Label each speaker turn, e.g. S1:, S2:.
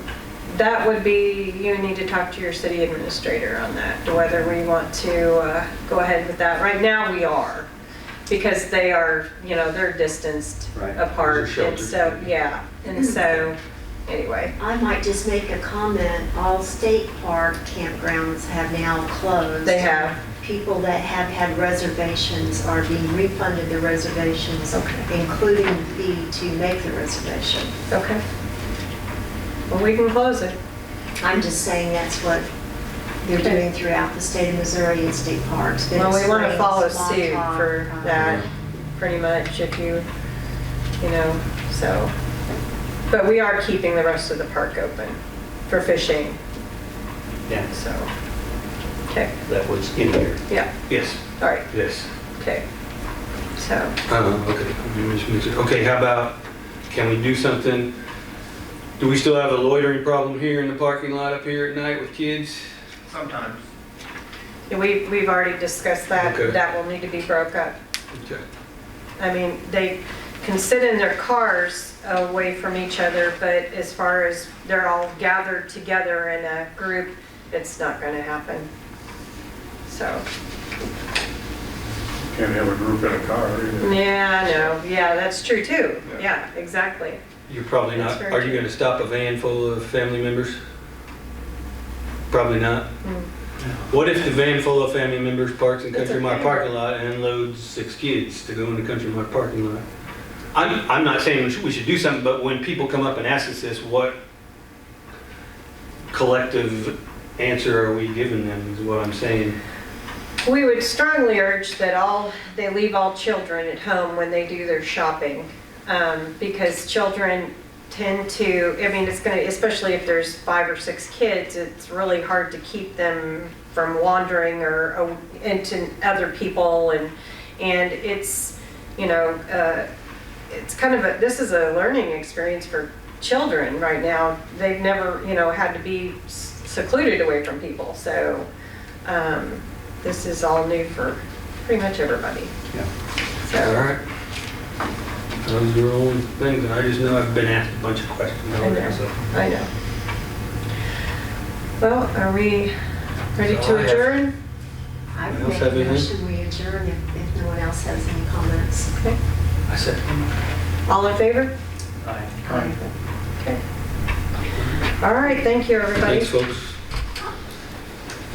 S1: that would be, you need to talk to your city administrator on that, to whether we want to uh, go ahead with that. Right now, we are, because they are, you know, they're distanced
S2: Right.
S1: apart.
S2: They're
S1: And so,
S2: sheltered.
S1: yeah, and so, anyway,
S3: I might just make a comment, all state park campgrounds have now closed.
S1: they have,
S3: People that have had reservations are being refunded their reservations,
S1: Okay.
S3: including the fee to make the reservation.
S1: okay. Well, we can close it.
S3: I'm just saying that's what they're
S1: Okay.
S3: doing throughout the state of Missouri in state parks.
S1: Well, we want to
S3: Venice
S1: follow
S3: Springs,
S1: suit
S3: Montauk,
S1: for
S3: um,
S1: that, pretty much, if you, you know, so. But we are keeping the rest of the park open for fishing,
S2: Yeah,
S1: so, okay,
S2: that was in here.
S1: yeah,
S4: Yes,
S1: all right,
S4: yes.
S1: okay. So,
S4: Uh, okay, You mentioned mix it. okay, how about, can we do something? Do we still have a loitering problem here in the parking lot up here at night with kids?
S5: Sometimes.
S1: we, we've already discussed that,
S4: Okay.
S1: that will need to be broke up.
S4: Okay.
S1: I mean, they can sit in their cars away from each other, but as far as they're all gathered together in a group, it's not going to happen. So,
S5: Can't have a group in a car either.
S1: yeah, I know, yeah, that's true too.
S5: Yeah.
S1: Yeah, exactly.
S4: You're probably
S1: That's
S4: not,
S1: very
S4: are you
S1: true.
S4: gonna stop a van full of family members? Probably not.
S1: Hmm.
S4: What if the van full of family members parks in
S1: That's
S4: Country Mart
S1: okay.
S4: parking lot and unloads six kids to go in the Country Mart parking lot? I'm, I'm not saying we should, we should do something, but when people come up and ask us this, what collective answer are we giving them is what I'm saying.
S1: We would strongly urge that all, they leave all children at home when they do their shopping, um, because children tend to, I mean, it's going to, especially if there's five or six kids, it's really hard to keep them from wandering or uh, into other people, and, and it's, you know, uh, it's kind of a, this is a learning experience for children right now. They've never, you know, had to be s- secluded away from people, so um, this is all new for pretty much everybody.
S4: Yeah. All
S1: So,
S4: right. Those are all things, and I just know I've been asked a bunch of questions.
S1: I know, I know. Well, are we ready
S4: That's all
S1: to
S4: I have.
S1: adjourn?
S3: I would
S4: Anyone
S3: make
S4: else
S3: a
S4: have anything?
S3: motion, we adjourn if, if no one else has any comments.
S4: I said,
S1: All in favor?
S2: Aye.
S1: All right, thank you, everybody.
S4: thanks, folks.